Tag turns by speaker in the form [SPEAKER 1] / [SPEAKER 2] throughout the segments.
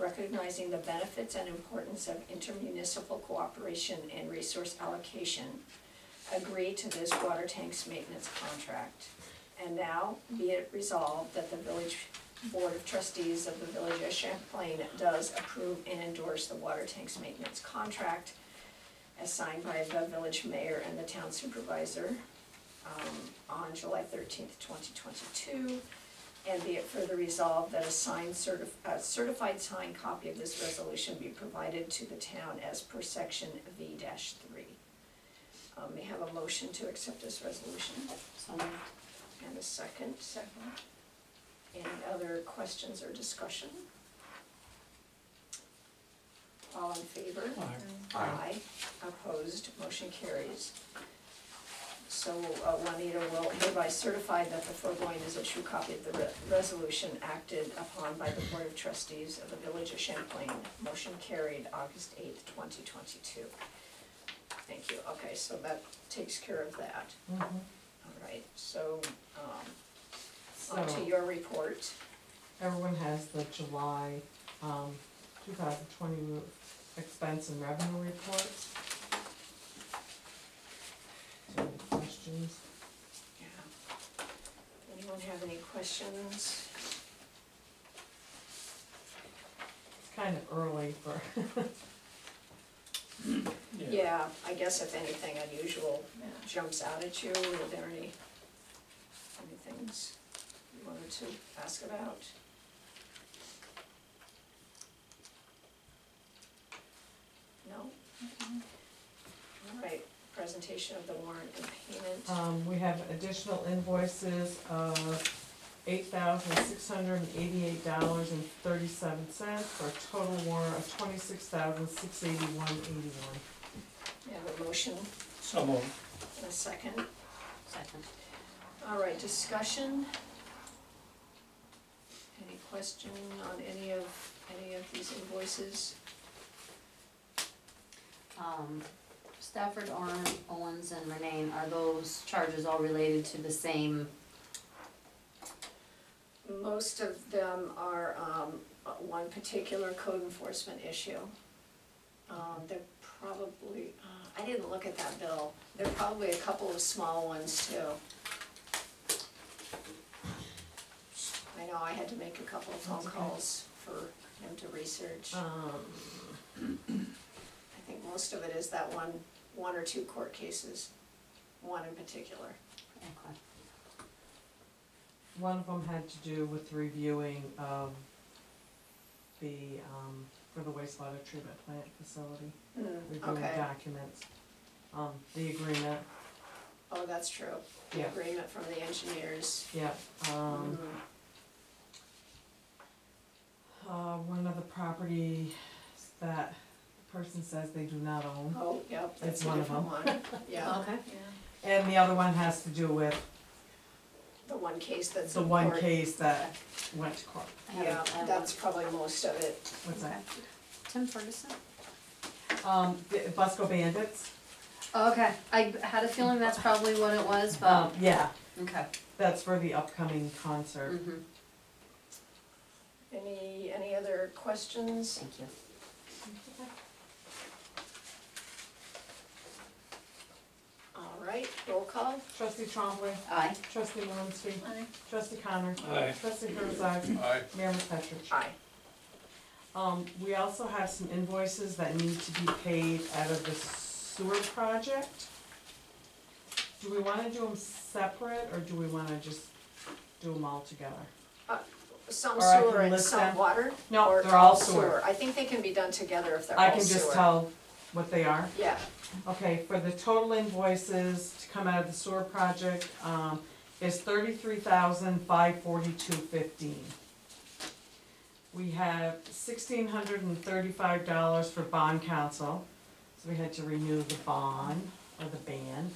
[SPEAKER 1] recognizing the benefits and importance of intermunicipal cooperation and resource allocation, agree to this water tanks maintenance contract. And now be it resolved that the village board of trustees of the village of Champlain does approve and endorse the water tanks maintenance contract as signed by the village mayor and the town supervisor um, on July thirteenth, twenty twenty-two. And be it further resolved that a signed certif- a certified signed copy of this resolution be provided to the town as per section V three. Um, may I have a motion to accept this resolution
[SPEAKER 2] So moved.
[SPEAKER 1] and a second. Second. Any other questions or discussion? All in favor?
[SPEAKER 3] Aye.
[SPEAKER 1] Opposed, motion carries. So uh, Juanita will hereby certify that the foregoing is a true copy of the re- resolution acted upon by the Board of Trustees of the Village of Champlain. Motion carried August eighth, twenty twenty-two. Thank you. Okay, so that takes care of that.
[SPEAKER 4] Mm-hmm.
[SPEAKER 1] All right, so, um,
[SPEAKER 4] So,
[SPEAKER 1] on to your report.
[SPEAKER 4] everyone has the July, um, two thousand twenty expense and revenue report. So, any questions?
[SPEAKER 1] Yeah. Anyone have any questions?
[SPEAKER 4] It's kind of early for,
[SPEAKER 1] Yeah, I guess if anything unusual jumps out at you, are there any, any things you wanted to ask about? No? All right, presentation of the warrant and payment.
[SPEAKER 4] um, we have additional invoices of eight thousand six hundred and eighty-eight dollars and thirty-seven cents for a total warrant of twenty-six thousand six eighty-one eighty-one.
[SPEAKER 1] We have a motion
[SPEAKER 3] So moved.
[SPEAKER 1] and a second.
[SPEAKER 2] Second.
[SPEAKER 1] All right, discussion? Any question on any of, any of these invoices?
[SPEAKER 2] Um, Stafford, Oren, Owens, and Renee, are those charges all related to the same?
[SPEAKER 1] Most of them are, um, uh, one particular code enforcement issue. Um, they're probably, uh, I didn't look at that bill, there are probably a couple of small ones too. I know I had to make a couple of phone
[SPEAKER 4] That's okay.
[SPEAKER 1] calls for him to research.
[SPEAKER 4] Um,
[SPEAKER 1] I think most of it is that one, one or two court cases, one in particular.
[SPEAKER 2] Okay.
[SPEAKER 4] One of them had to do with reviewing of the, um, for the wastewater treatment plant facility, reviewing
[SPEAKER 1] Okay,
[SPEAKER 4] documents. Um, the agreement,
[SPEAKER 1] oh, that's true. The
[SPEAKER 4] yeah,
[SPEAKER 1] agreement from the engineers.
[SPEAKER 4] yeah,
[SPEAKER 1] Mm,
[SPEAKER 4] um, uh, one of the properties that the person says they do not own.
[SPEAKER 1] Oh, yep, that's
[SPEAKER 4] It's
[SPEAKER 1] a
[SPEAKER 4] one of
[SPEAKER 1] different one, yeah.
[SPEAKER 2] Oh, Okay.
[SPEAKER 4] And the other one has to do with
[SPEAKER 1] The one case that's
[SPEAKER 4] the
[SPEAKER 1] in
[SPEAKER 4] one
[SPEAKER 1] court.
[SPEAKER 4] case that went to court,
[SPEAKER 2] I have- I
[SPEAKER 1] Yeah,
[SPEAKER 2] have one.
[SPEAKER 1] that's probably most of it.
[SPEAKER 4] what's that?
[SPEAKER 2] Tim Ferguson?
[SPEAKER 4] Um, the Busco Bandits,
[SPEAKER 2] Okay, I had a feeling that's probably what it was,
[SPEAKER 1] Oh.
[SPEAKER 4] um,
[SPEAKER 2] but,
[SPEAKER 4] yeah,
[SPEAKER 2] okay.
[SPEAKER 4] that's for the upcoming concert.
[SPEAKER 2] Mhm.
[SPEAKER 1] Any, any other questions?
[SPEAKER 2] Thank you.
[SPEAKER 1] Mm-hmm. All right, roll call.
[SPEAKER 4] Trustee Trombley,
[SPEAKER 2] Aye.
[SPEAKER 4] trustee Malinsky. Trustee Connor.
[SPEAKER 3] Aye.
[SPEAKER 4] Trustee Herzog.
[SPEAKER 3] Aye.
[SPEAKER 4] Mayor McFetrich.
[SPEAKER 1] Aye.
[SPEAKER 4] Um, we also have some invoices that need to be paid out of the sewer project. Do we wanna do them separate, or do we wanna just do them all together?
[SPEAKER 1] Some
[SPEAKER 4] Or I can
[SPEAKER 1] sewer and
[SPEAKER 4] list
[SPEAKER 1] some
[SPEAKER 4] them.
[SPEAKER 1] water?
[SPEAKER 4] No,
[SPEAKER 1] or
[SPEAKER 4] they're all sewer.
[SPEAKER 1] I think they can be done together if they're all
[SPEAKER 4] I
[SPEAKER 1] sewer.
[SPEAKER 4] can just tell what they are.
[SPEAKER 1] Yeah,
[SPEAKER 4] Okay, for the total invoices to come out of the sewer project, um, is thirty-three thousand five forty-two fifteen. We have sixteen hundred and thirty-five dollars for bond council, so we had to renew the bond or the ban.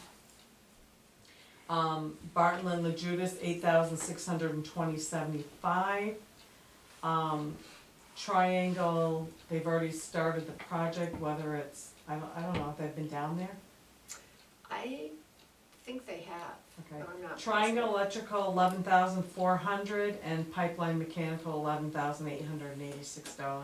[SPEAKER 4] Um, Barton and La Judas, eight thousand six hundred and twenty seventy-five. Um, Triangle, they've already started the project, whether it's, I don't, I don't know if they've been down there,
[SPEAKER 1] I think they have,
[SPEAKER 4] okay.
[SPEAKER 1] but I'm not.
[SPEAKER 4] Triangle Electrical, eleven thousand four hundred, and Pipeline Mechanical, eleven thousand eight hundred and eighty-six dollars.